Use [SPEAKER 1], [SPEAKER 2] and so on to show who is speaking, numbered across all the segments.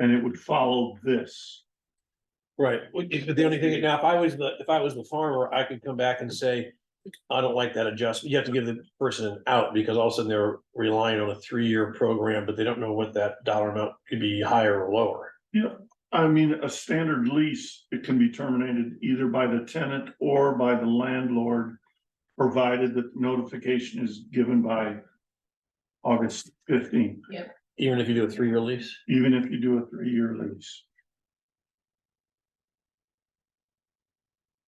[SPEAKER 1] and it would follow this.
[SPEAKER 2] Right, Well, if- but the only thing, now, if I was the, if I was the farmer, I could come back and say, I don't like that adjustment, you have to give the person an out, because all of a sudden they're relying on a three-year program, but they don't know what that dollar amount could be higher or lower.
[SPEAKER 1] I mean, a standard lease, it can be terminated either by the tenant or by the landlord. Provided that notification is given by. August fifteenth,
[SPEAKER 2] Even if you do a three-year lease,
[SPEAKER 1] even if you do a three-year lease.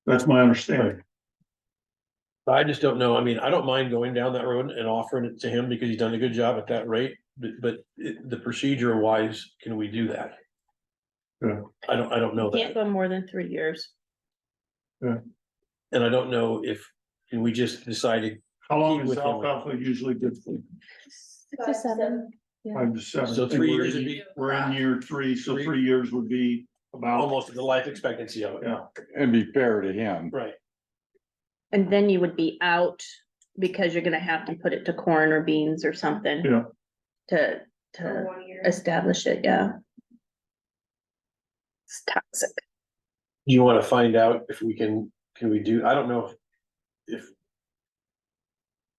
[SPEAKER 1] That's my understanding.
[SPEAKER 2] But I just don't know, I mean, I don't mind going down that road and offering it to him, because he's done a good job at that rate, but, but it- the procedure wise, can we do that?
[SPEAKER 1] Yeah.
[SPEAKER 2] I don't, I don't know that.
[SPEAKER 3] Can't go more than three years.
[SPEAKER 2] And I don't know if, can we just decide to
[SPEAKER 1] How long
[SPEAKER 2] Keep
[SPEAKER 1] is
[SPEAKER 2] with him.
[SPEAKER 1] alfalfa usually good for?
[SPEAKER 3] Six to seven.
[SPEAKER 1] Five to seven.
[SPEAKER 2] So three
[SPEAKER 1] We're
[SPEAKER 2] years
[SPEAKER 1] in-
[SPEAKER 2] would be-
[SPEAKER 1] We're in year three, so
[SPEAKER 2] Three-
[SPEAKER 1] three years would be about,
[SPEAKER 2] almost the life expectancy of it?
[SPEAKER 1] yeah,
[SPEAKER 4] and be fair to him.
[SPEAKER 2] Right,
[SPEAKER 3] And then you would be out because you're gonna have to put it to corn or beans or something.
[SPEAKER 1] Yeah.
[SPEAKER 3] To, to establish it, yeah. It's toxic.
[SPEAKER 2] Do you wanna find out if we can, can we do, I don't know if- if.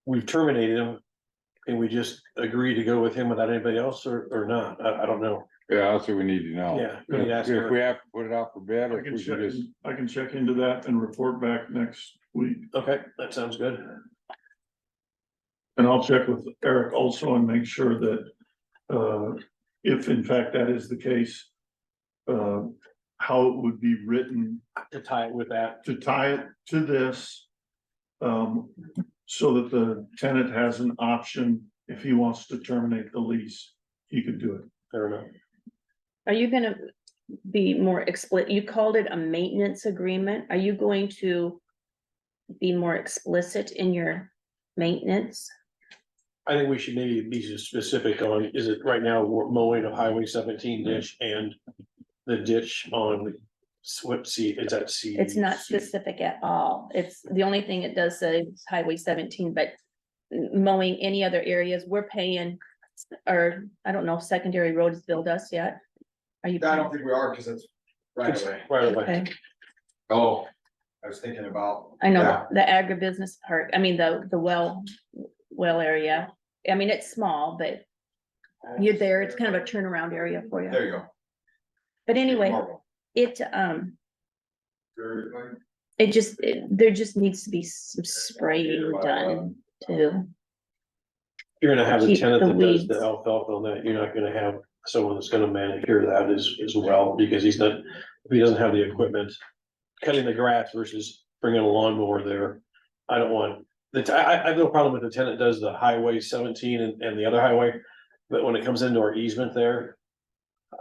[SPEAKER 2] We've terminated him, and we just agree to go with him without anybody else or, or not, I, I don't know,
[SPEAKER 4] Yeah, that's what we need to know.
[SPEAKER 2] yeah. we need to
[SPEAKER 4] Oh, If
[SPEAKER 2] ask
[SPEAKER 4] if we
[SPEAKER 2] her.
[SPEAKER 4] have to put it out for bid, or
[SPEAKER 1] I
[SPEAKER 4] if
[SPEAKER 1] can
[SPEAKER 4] we
[SPEAKER 1] check,
[SPEAKER 4] can just,
[SPEAKER 1] in- I can check into that and report back next week.
[SPEAKER 2] Okay, that sounds good,
[SPEAKER 1] And I'll check with Eric also and make sure that, uh, if in fact that is the case. Uh, how it would be written
[SPEAKER 2] to tie it with that,
[SPEAKER 1] to tie it to this. Um, so that the tenant has an option, if he wants to terminate the lease, he could do it.
[SPEAKER 2] fair enough.
[SPEAKER 3] Are you gonna be more explicit? You called it a maintenance agreement. Are you going to be more explicit in your maintenance?
[SPEAKER 2] I think we should maybe be specific on, is it right now we're mowing of Highway seventeen ditch and the ditch on Swip C, is that C?
[SPEAKER 3] It's not specific at all. It's, the only thing it does say is Highway seventeen, but mowing any other areas, we're paying, or I don't know, if secondary roads billed us yet. Are you?
[SPEAKER 5] I don't think we are, because it's right away.
[SPEAKER 2] Right away.
[SPEAKER 3] Okay,
[SPEAKER 5] Oh, I was thinking about.
[SPEAKER 3] I know
[SPEAKER 5] Yeah.
[SPEAKER 3] the agribusiness part, I mean, the, the well, well area. I mean, it's small, but you're there. It's kind of a turnaround area for you.
[SPEAKER 5] There you go.
[SPEAKER 3] But anyway,
[SPEAKER 5] Marble.
[SPEAKER 3] it, um,
[SPEAKER 5] Very good.
[SPEAKER 3] it just, it- there just needs to be some spraying done too.
[SPEAKER 2] You're gonna have a
[SPEAKER 3] Keep
[SPEAKER 2] tenant
[SPEAKER 3] the
[SPEAKER 2] that does the
[SPEAKER 3] weeds.
[SPEAKER 2] alfalfa on that, you're not gonna have someone that's gonna manicure that as, as well, because he's not, if he doesn't have the equipment. Cutting the grass versus bringing a lawnmower there, I don't want, the, t- I, I- I have no problem with the tenant does the highway seventeen and, and the other highway. But when it comes into our easement there,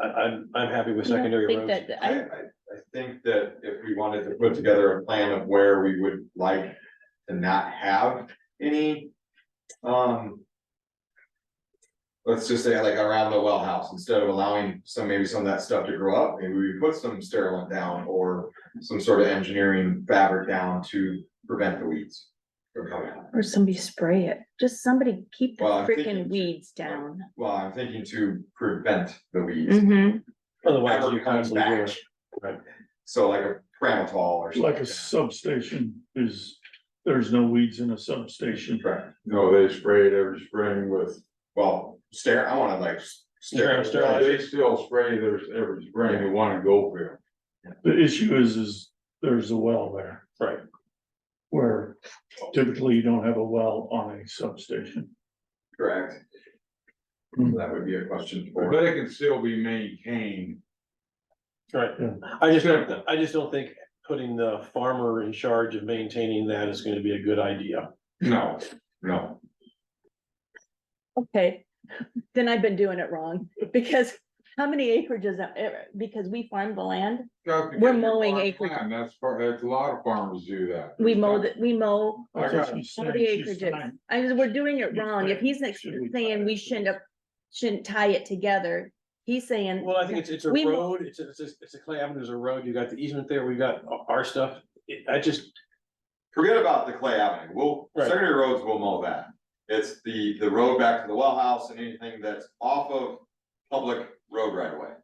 [SPEAKER 2] I, I'm, I'm happy with
[SPEAKER 3] You don't
[SPEAKER 2] secondary
[SPEAKER 3] think
[SPEAKER 2] roads.
[SPEAKER 3] that- that-
[SPEAKER 5] I, I, I think that if we wanted to put together a plan of where we would like to not have any, um. Let's just say like around the well house, instead of allowing some, maybe some of that stuff to grow up, maybe we put some sterilant down or some sort of engineering fabric down to prevent the weeds. From coming out.
[SPEAKER 3] Or somebody spray it, just somebody keep the
[SPEAKER 5] Well, I'm
[SPEAKER 3] freaking
[SPEAKER 5] thinking-
[SPEAKER 3] weeds down.
[SPEAKER 5] Well, I'm thinking to prevent the weeds,
[SPEAKER 3] Mm-hmm,
[SPEAKER 2] Otherwise,
[SPEAKER 5] ever
[SPEAKER 2] you
[SPEAKER 5] comes
[SPEAKER 2] constantly do
[SPEAKER 5] back.
[SPEAKER 2] it. Right.
[SPEAKER 5] So like a pramitol or something.
[SPEAKER 1] Like a substation is, there's no weeds in a substation.
[SPEAKER 5] Correct.
[SPEAKER 6] No, they spray it every spring with,
[SPEAKER 5] Well, stare, I wanna like stare.
[SPEAKER 2] Sterilize.
[SPEAKER 6] they still spray theirs every spring, they wanna go for
[SPEAKER 1] The issue is, is there's a well there.
[SPEAKER 2] Right.
[SPEAKER 1] Where typically you don't have a well on a substation.
[SPEAKER 5] Correct.
[SPEAKER 1] Hmm.
[SPEAKER 5] That would be a question
[SPEAKER 6] it,
[SPEAKER 5] for.
[SPEAKER 6] but it can still be maintained.
[SPEAKER 2] Right,
[SPEAKER 1] Yeah.
[SPEAKER 2] I just, don't-
[SPEAKER 6] Sure.
[SPEAKER 2] I just don't think putting the farmer in charge of maintaining that is gonna be a good idea.
[SPEAKER 6] No,
[SPEAKER 5] No,
[SPEAKER 3] okay, then I've been doing it wrong, because how many acreages, are- eh, because we farm the land,
[SPEAKER 6] that's because
[SPEAKER 3] We're
[SPEAKER 6] you're
[SPEAKER 3] mowing
[SPEAKER 6] farming
[SPEAKER 3] acreage.
[SPEAKER 6] land, That's part, that's a lot of farmers do that.
[SPEAKER 3] we mow, the- we mow
[SPEAKER 1] That's what she's
[SPEAKER 3] all the
[SPEAKER 1] saying. She's
[SPEAKER 3] acreages.
[SPEAKER 1] saying
[SPEAKER 3] I mean, we're doing it
[SPEAKER 1] You're
[SPEAKER 3] wrong, if
[SPEAKER 1] saying,
[SPEAKER 3] he's like
[SPEAKER 1] should we tie
[SPEAKER 3] saying
[SPEAKER 1] it
[SPEAKER 3] we
[SPEAKER 1] to
[SPEAKER 3] shouldn't,
[SPEAKER 1] this?
[SPEAKER 3] have- shouldn't tie it together, he's saying.
[SPEAKER 2] Well, I think it's, it's a
[SPEAKER 3] We-
[SPEAKER 2] road, it's, a- it's, a- it's a Clay Avenue, there's a road, you got the easement there, we got o- our stuff. It- I just,
[SPEAKER 5] forget about the Clay Avenue, we'll,
[SPEAKER 2] Right.
[SPEAKER 5] secondary roads will mow that. It's the, the road back to the well house and anything that's off of public road right away.